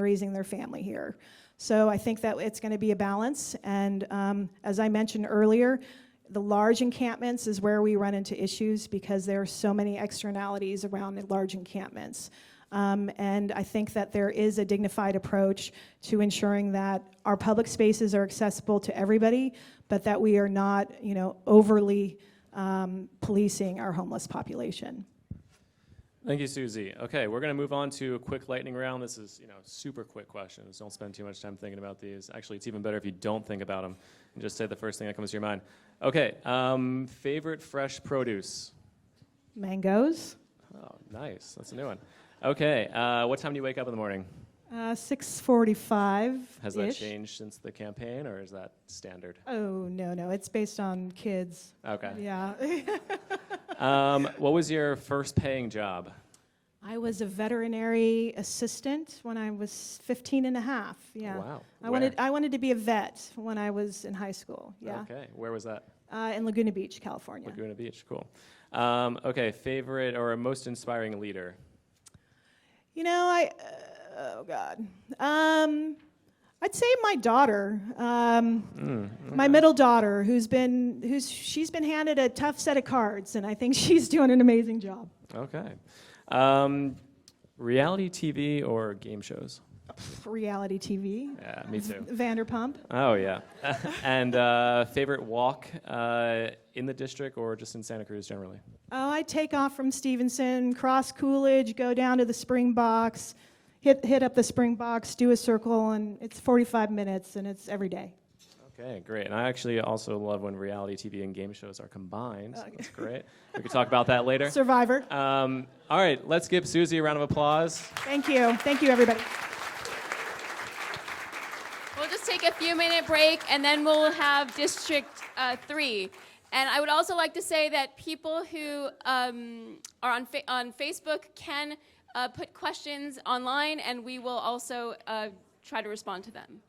raising their family here. So I think that it's going to be a balance. And um, as I mentioned earlier, the large encampments is where we run into issues because there are so many externalities around the large encampments. Um, and I think that there is a dignified approach to ensuring that our public spaces are accessible to everybody, but that we are not, you know, overly um, policing our homeless population. Thank you, Susie. Okay, we're going to move on to a quick lightning round. This is, you know, super quick questions. Don't spend too much time thinking about these. Actually, it's even better if you don't think about them and just say the first thing that comes to your mind. Okay, um, favorite fresh produce? Mangoes, Oh, nice. That's a new one. Okay, uh, what time do you wake up in the morning? uh, 645. Has that changed since the campaign, or is that standard? Oh, no, no. It's based on kids. Okay. Yeah. Um, what was your first paying job? I was a veterinary assistant when I was 15 and a half. Yeah. Wow. I Where? wanted, I wanted to be a vet when I was in high school. Yeah. Okay. Where was that? Uh, in Laguna Beach, California. Laguna Beach. Cool. Um, okay. Favorite or most inspiring leader? You know, I, uh, oh God. Um, I'd say my daughter, um, Hmm, my middle daughter, who's been, who's, she's been handed a tough set of cards, and I think she's doing an amazing job. Okay. Um, reality TV or game shows? Reality TV, Yeah, me too. Vanderpump. Oh, yeah. and uh, favorite walk uh, in the district or just in Santa Cruz generally? Oh, I take off from Stevenson, cross Coolidge, go down to the Spring Box, hit, hit up the Spring Box, do a circle, and it's 45 minutes, and it's every day. Okay, great. And I actually also love when reality TV and game shows are combined. so That's great. We could talk about that later. Survivor. Um, all right, let's give Susie a round of applause. Thank you. Thank you, everybody. We'll just take a few minute break and then we'll have District uh, 3. And I would also like to say that people who um, are on, fa- on Facebook can uh, put questions online and we will also uh, try to respond to them.